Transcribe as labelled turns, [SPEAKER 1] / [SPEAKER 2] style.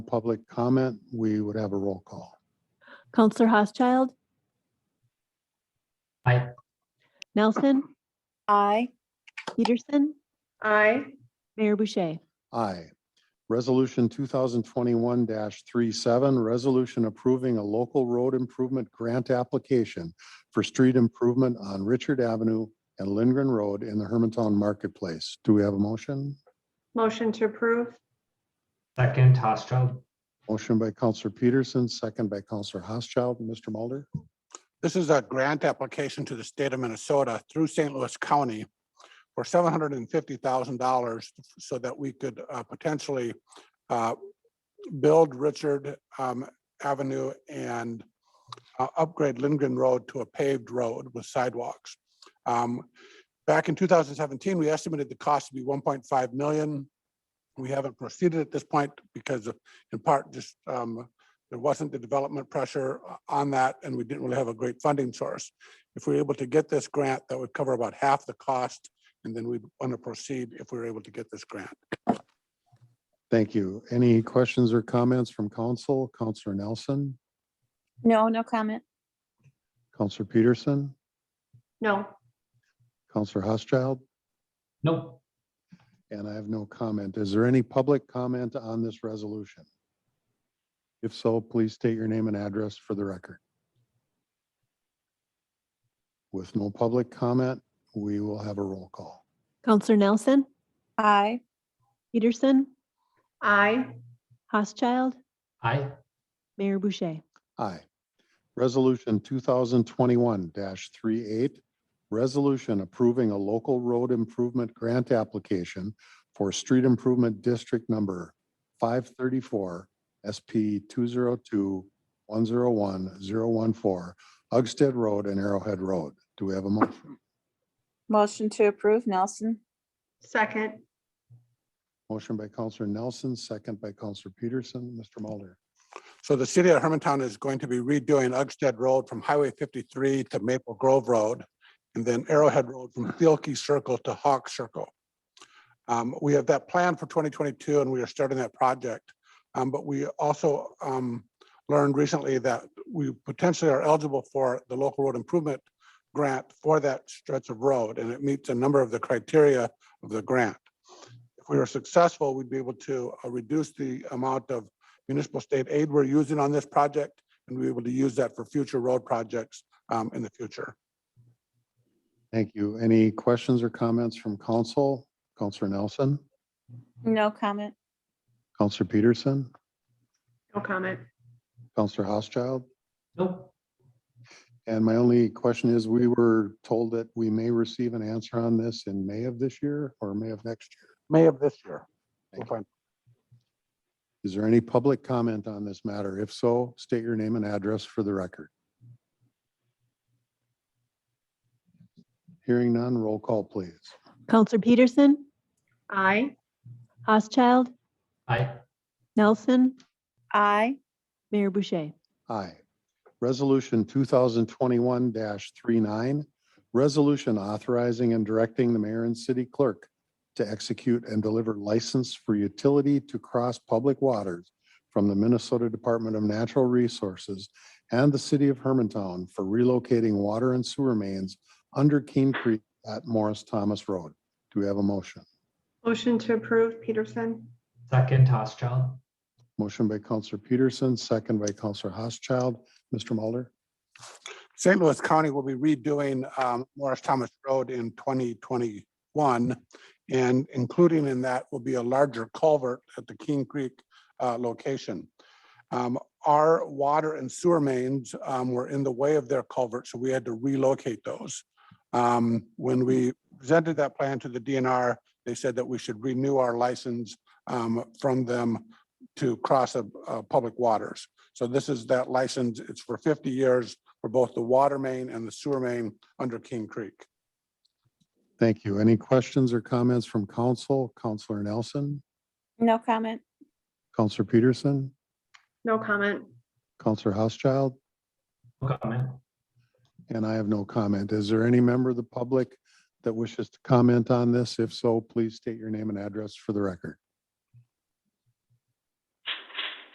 [SPEAKER 1] public comment, we would have a roll call.
[SPEAKER 2] Counselor Housechild.
[SPEAKER 3] Aye.
[SPEAKER 2] Nelson,
[SPEAKER 4] Aye.
[SPEAKER 2] Peterson,
[SPEAKER 4] Aye.
[SPEAKER 2] Mayor Boucher.
[SPEAKER 1] Aye. Resolution two thousand twenty-one 37 resolution approving a local road improvement grant application for street improvement on Richard Avenue and Lindgren Road in the Hermantown Marketplace. Do we have a motion?
[SPEAKER 4] Motion to approve?
[SPEAKER 3] Second, Housechild.
[SPEAKER 1] Motion by Counselor Peterson, second by Counselor Housechild. Mr. Mulder?
[SPEAKER 5] This is a grant application to the state of Minnesota through St. Louis County for seven hundred and fifty thousand dollars so that we could uh, potentially uh, build Richard um, Avenue and uh, upgrade Lindgren Road to a paved road with sidewalks. Um, Back in two thousand seventeen, we estimated the cost to be one point five million. We haven't proceeded at this point because of, in part, just um, there wasn't the development pressure o- on that, and we didn't really have a great funding source. If we we're able to get this grant, that would cover about half the cost, and then we'd want to proceed if we were able to get this grant.
[SPEAKER 1] Thank you. Any questions or comments from council? Counselor Nelson,
[SPEAKER 4] No, no comment.
[SPEAKER 1] Counselor Peterson,
[SPEAKER 4] No.
[SPEAKER 1] Counselor Housechild?
[SPEAKER 3] Nope.
[SPEAKER 1] And I have no comment. Is there any public comment on this resolution? If so, please state your name and address for the record. With no public comment, we will have a roll call.
[SPEAKER 2] Counselor Nelson,
[SPEAKER 4] Aye.
[SPEAKER 2] Peterson,
[SPEAKER 4] Aye.
[SPEAKER 2] Housechild,
[SPEAKER 3] Aye.
[SPEAKER 2] Mayor Boucher.
[SPEAKER 1] Aye. Resolution two thousand twenty-one 38 resolution approving a local road improvement grant application for street improvement district number five thirty-four SP two zero two one zero one zero one four, Uggstead Road and Arrowhead Road. Do we have a motion?
[SPEAKER 6] Motion to approve, Nelson.
[SPEAKER 4] Second.
[SPEAKER 1] Motion by Counselor Nelson, second by Counselor Peterson. Mr. Mulder?
[SPEAKER 5] So the city of Hermantown is going to be redoing Uggstead Road from Highway fifty-three to Maple Grove Road, and then Arrowhead Road from Thielke Circle to Hawk Circle. Um, we have that plan for twenty twenty-two, and we are starting that project. Um, but we also, um, learned recently that we potentially are eligible for the local road improvement grant for that stretch of road, and it meets a number of the criteria of the grant. If we were successful, we'd be able to uh, reduce the amount of municipal state aid we're using on this project, and we're able to use that for future road projects um, in the future.
[SPEAKER 1] Thank you. Any questions or comments from council? Counselor Nelson?
[SPEAKER 6] No comment.
[SPEAKER 1] Counselor Peterson?
[SPEAKER 4] No comment.
[SPEAKER 1] Counselor Housechild?
[SPEAKER 3] Nope.
[SPEAKER 1] And my only question is, we were told that we may receive an answer on this in May of this year or May of next year.
[SPEAKER 5] May of this year. we'll
[SPEAKER 1] Thank
[SPEAKER 5] find-
[SPEAKER 1] Is there any public comment on this matter? If so, state your name and address for the record. Hearing none, roll call, please.
[SPEAKER 2] Counselor Peterson,
[SPEAKER 4] Aye.
[SPEAKER 2] Housechild,
[SPEAKER 3] Aye.
[SPEAKER 2] Nelson,
[SPEAKER 6] Aye.
[SPEAKER 2] Mayor Boucher.
[SPEAKER 1] Aye. Resolution two thousand twenty-one 39 resolution authorizing and directing the mayor and city clerk to execute and deliver license for utility to cross public waters from the Minnesota Department of Natural Resources and the city of Hermantown for relocating water and sewer mains under Keene Creek at Morris Thomas Road. Do we have a motion?
[SPEAKER 4] Motion to approve, Peterson?
[SPEAKER 3] Second, Housechild.
[SPEAKER 1] Motion by Counselor Peterson, second by Counselor Housechild. Mr. Mulder?
[SPEAKER 5] St. Louis County will be redoing um, Morris Thomas Road in 2021. And including in that will be a larger culvert at the King Creek uh, location. Um, Our water and sewer mains um, were in the way of their culvert, so we had to relocate those. Um, When we presented that plan to the DNR, they said that we should renew our license um, from them to cross uh, uh, public waters. So this is that license. It's for 50 years for both the water main and the sewer main under King Creek.
[SPEAKER 1] Thank you. Any questions or comments from council? Counselor Nelson,
[SPEAKER 6] No comment.
[SPEAKER 1] Counselor Peterson,
[SPEAKER 4] No comment.
[SPEAKER 1] Counselor Housechild,
[SPEAKER 3] No comment.
[SPEAKER 1] and I have no comment. Is there any member of the public that wishes to comment on this? If so, please state your name and address for the record.